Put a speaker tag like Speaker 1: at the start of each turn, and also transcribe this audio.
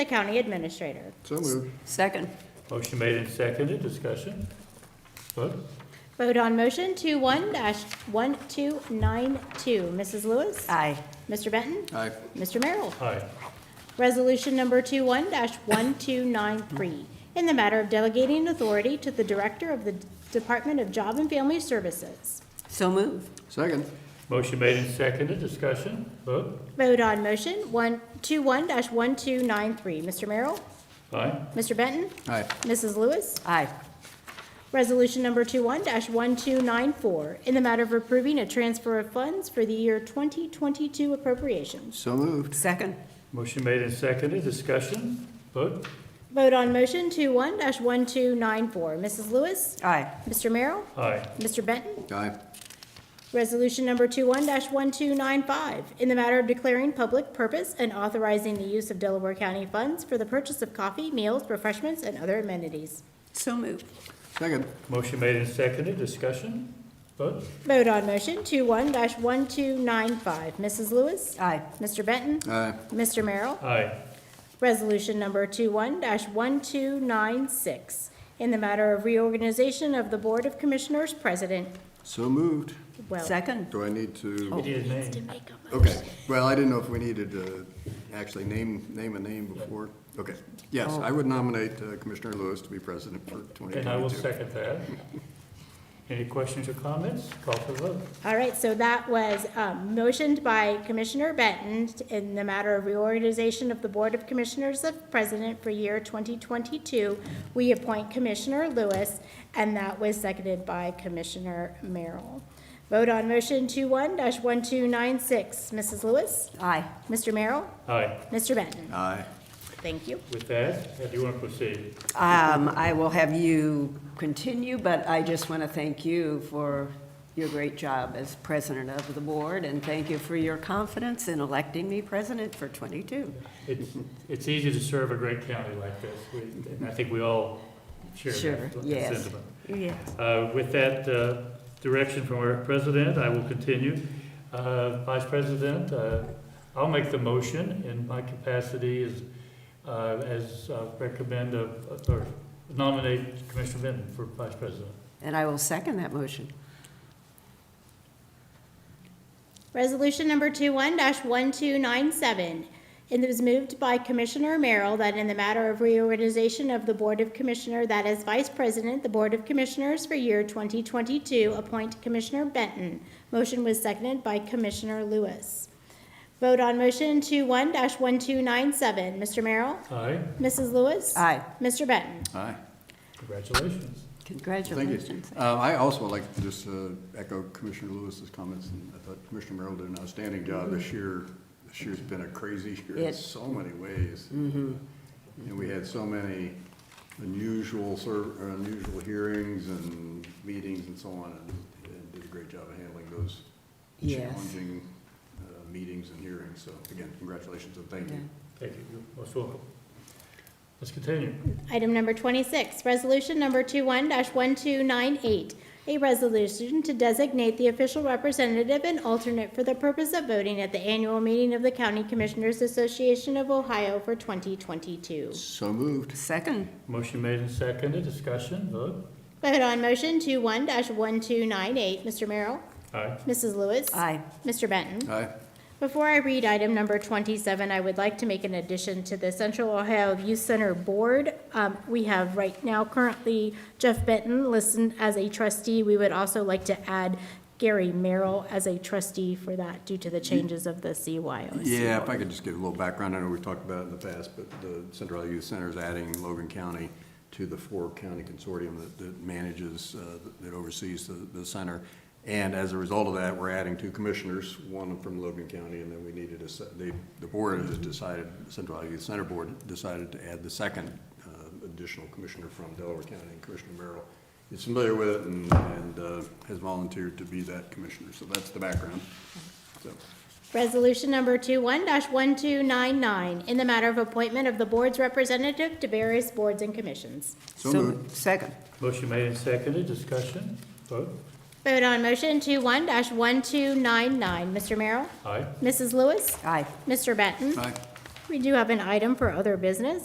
Speaker 1: the county administrator.
Speaker 2: So moved.
Speaker 3: Second.
Speaker 4: Motion made and seconded, discussion. Vote?
Speaker 1: Vote on motion two one dash one two nine two. Mrs. Lewis?
Speaker 3: Aye.
Speaker 1: Mr. Benton?
Speaker 2: Aye.
Speaker 1: Mr. Merrill?
Speaker 4: Aye.
Speaker 1: Resolution number 21-1293, in the matter of delegating authority to the Director of the Department of Job and Family Services.
Speaker 3: So move.
Speaker 2: Second.
Speaker 4: Motion made and seconded, discussion. Vote?
Speaker 1: Vote on motion one two one dash 1293 Mr. Merrill?
Speaker 4: Aye.
Speaker 1: Mr. Benton?
Speaker 2: Aye.
Speaker 1: Mrs. Lewis?
Speaker 3: Aye.
Speaker 1: Resolution number 21-1294, in the matter of approving a transfer of funds for the year 2022 appropriations.
Speaker 2: So moved.
Speaker 3: Second.
Speaker 4: Motion made and seconded, discussion. Vote?
Speaker 1: Vote on motion two one dash 1294 Mrs. Lewis?
Speaker 3: Aye.
Speaker 1: Mr. Merrill?
Speaker 4: Aye.
Speaker 1: Mr. Benton?
Speaker 2: Aye.
Speaker 1: Resolution number 21-1295, in the matter of declaring public purpose and authorizing the use of Delaware County funds for the purchase of coffee, meals, refreshments, and other amenities.
Speaker 3: So move.
Speaker 2: Second.
Speaker 4: Motion made and seconded, discussion. Vote?
Speaker 1: Vote on motion 21-1295. Mrs. Lewis?
Speaker 3: Aye.
Speaker 1: Mr. Benton?
Speaker 2: Aye.
Speaker 1: Mr. Merrill?
Speaker 4: Aye.
Speaker 1: Resolution number 21-1296, in the matter of reorganization of the Board of Commissioners President.
Speaker 2: So moved.
Speaker 1: Well,
Speaker 3: Second.
Speaker 2: Do I need
Speaker 4: We
Speaker 2: to?
Speaker 4: need a name.
Speaker 2: Okay. Well, I didn't know if we needed to actually name, name a name before. Okay. Yes, I would nominate uh, Commissioner Lewis to be president for
Speaker 4: And I will
Speaker 2: 2022.
Speaker 4: second that. Any questions or comments? Call for the vote.
Speaker 1: All right, so that was um, motioned by Commissioner Benton in the matter of reorganization of the Board of Commissioners of President for year 2022. We appoint Commissioner Lewis, and that was seconded by Commissioner Merrill. Vote on motion 21-1296. Mrs. Lewis?
Speaker 3: Aye.
Speaker 1: Mr. Merrill?
Speaker 4: Aye.
Speaker 1: Mr. Benton?
Speaker 2: Aye.
Speaker 1: Thank you.
Speaker 4: With that, how do you want to proceed?
Speaker 3: Um, I will have you continue, but I just want to thank you for your great job as president of the board, and thank you for your confidence in electing me president for '22.
Speaker 4: It's, it's easy to serve a great county like this, We- and I think we all share
Speaker 3: Sure,
Speaker 4: that
Speaker 3: yes.
Speaker 4: sentiment.
Speaker 3: Yes.
Speaker 4: Uh, With that uh, direction from our president, I will continue. Uh, Vice President, uh, I'll make the motion in my capacity as, uh, as uh, recommend of, or nominate Commissioner Benton for Vice President.
Speaker 3: And I will second that motion.
Speaker 1: Resolution number 21-1297. And it was moved by Commissioner Merrill that in the matter of reorganization of the Board of Commissioner, that as Vice President, the Board of Commissioners for year 2022, appoint Commissioner Benton. Motion was seconded by Commissioner Lewis. Vote on motion 21-1297. Mr. Merrill?
Speaker 4: Aye,
Speaker 1: Mrs. Lewis?
Speaker 3: Aye.
Speaker 1: Mr. Benton?
Speaker 2: Aye.
Speaker 4: congratulations.
Speaker 2: Thank you.
Speaker 3: Congratulations.
Speaker 2: Um, I also would like to just uh, echo Commissioner Lewis's comments, and I thought Commissioner Merrill did an outstanding job this year. This year's been a crazy year in
Speaker 3: It-
Speaker 2: so many ways.
Speaker 3: Mm-hmm.
Speaker 2: And we had so many unusual, ser- or unusual hearings and meetings and so on, and- and did a great job of handling those
Speaker 3: Yes.
Speaker 2: challenging uh, meetings and hearings. So again, congratulations and thank you.
Speaker 4: Thank you, you're most welcome. Let's continue.
Speaker 1: Item number 26, resolution number 21-1298, a resolution to designate the official representative and alternate for the purpose of voting at the annual meeting of the County Commissioners Association of Ohio for 2022.
Speaker 2: So moved.
Speaker 3: Second.
Speaker 4: Motion made and seconded, discussion, vote.
Speaker 1: Vote on motion 21-1298. Mr. Merrill?
Speaker 4: Aye.
Speaker 1: Mrs. Lewis?
Speaker 3: Aye.
Speaker 1: Mr. Benton?
Speaker 2: Aye.
Speaker 1: Before I read item number 27, I would like to make an addition to the Central Ohio Youth Center Board. Um, We have right now currently Jeff Benton listed as a trustee. We would also like to add Gary Merrill as a trustee for that due to the changes of the CYOs.
Speaker 2: Yeah, if I could just give a little background, I know we've talked about it in the past, but the Central Iowa Youth Center is adding Logan County to the four-county consortium that, that manages, uh, that oversees the, the center. And as a result of that, we're adding two commissioners, one from Logan County, and then we needed a, se- they, the board has decided, Central Iowa Youth Center Board decided to add the second uh, additional commissioner from Delaware County, Commissioner Merrill. Is familiar with it and, and uh, has volunteered to be that commissioner, so that's the background, so.
Speaker 1: Resolution number 21-1299, in the matter of appointment of the board's representative to various boards and commissions.
Speaker 2: So
Speaker 3: So
Speaker 2: moved.
Speaker 3: moved. Second.
Speaker 4: Motion made and seconded, discussion, vote.
Speaker 1: Vote on motion 21-1299. Mr. Merrill?
Speaker 4: Aye.
Speaker 1: Mrs. Lewis?
Speaker 3: Aye.
Speaker 1: Mr. Benton?
Speaker 2: Aye.
Speaker 1: We do have an item for other business.